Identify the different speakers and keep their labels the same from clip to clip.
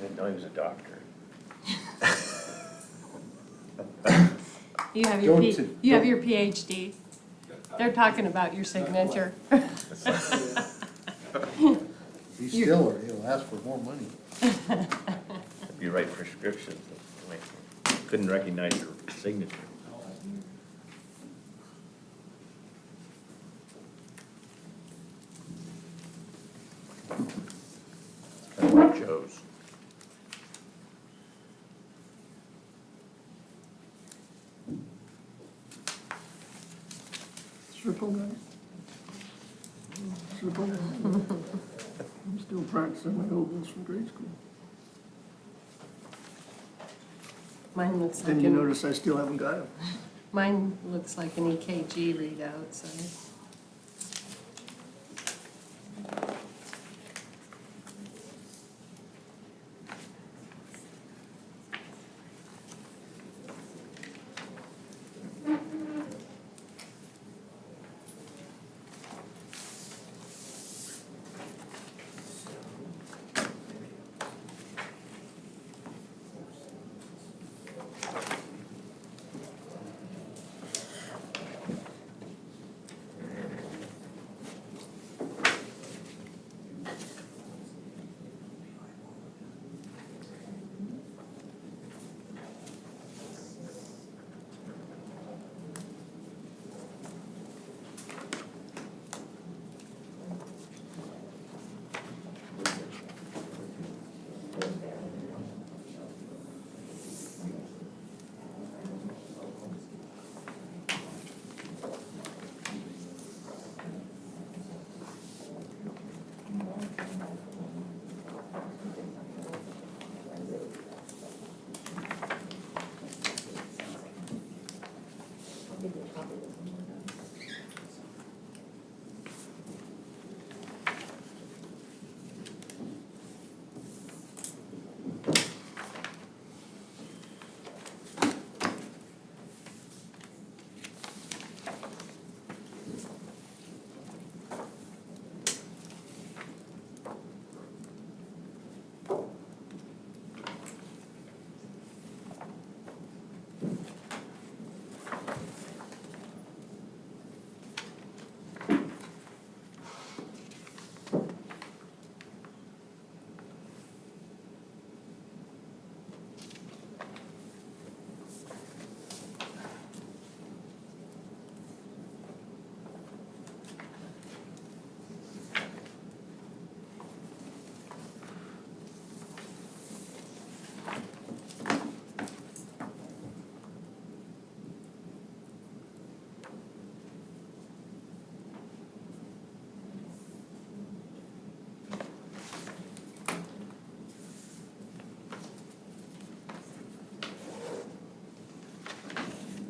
Speaker 1: Didn't know he was a doctor.
Speaker 2: You have your,
Speaker 1: Don't
Speaker 2: P-
Speaker 1: t-
Speaker 2: you have
Speaker 1: don't-
Speaker 2: your PhD. They're talking about your signature.
Speaker 3: Be
Speaker 2: You're-
Speaker 3: still, or he'll ask for more money.
Speaker 1: If you write prescriptions, couldn't recognize your signature. It's kind of like Joe's.
Speaker 4: Triple net. Triple net. I'm still practicing my oboes from grade school.
Speaker 2: Mine looks like,
Speaker 4: Didn't you
Speaker 2: an
Speaker 4: notice I still haven't got them?
Speaker 2: mine looks like an EKG readout, so.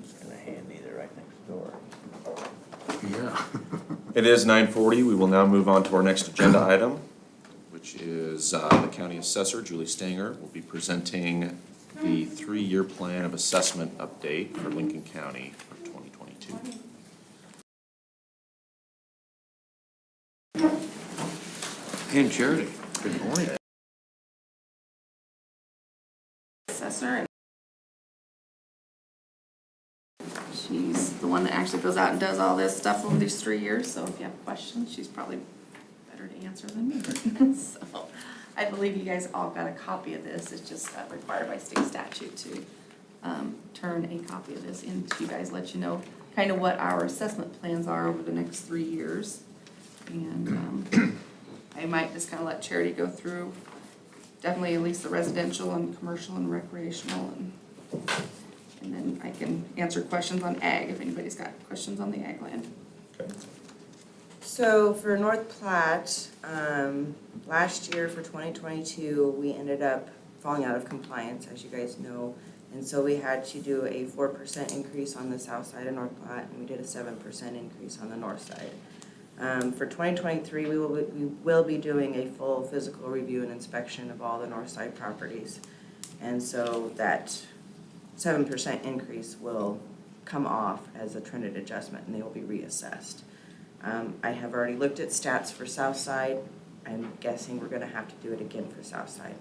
Speaker 1: It's kind of handy, they're right next door.
Speaker 3: Yeah.
Speaker 5: It is nine forty. We will now move on to our next agenda item, which is uh, the county assessor, Julie Stanger, will be presenting the three-year plan of assessment update for Lincoln County for twenty twenty-two.
Speaker 3: And Charity, good morning.
Speaker 6: assessor. and She's the one that actually goes out and does all this stuff over these three years, so if you have questions, she's probably better to answer than me. So, I believe you guys all got a copy of this, it's just uh, required by state statute to um, turn a copy of this in to you guys, let you know kind of what our assessment plans are over the next three years. And um, I might just kind of let Charity go through definitely at least the residential and commercial and recreational and, and then I can answer questions on ag if anybody's got questions on the ag land.
Speaker 7: So for North Platte, um, last year for twenty twenty-two, we ended up falling out of compliance, as you guys know. And so we had to do a four percent increase on the south side of North Platte, and we did a seven percent increase on the north side. Um, for twenty twenty-three, we will, be- we will be doing a full physical review and inspection of all the north side properties. And so that seven percent increase will come off as a trended adjustment, and they will be reassessed. Um, I have already looked at stats for Southside. I'm guessing we're gonna have to do it again for Southside.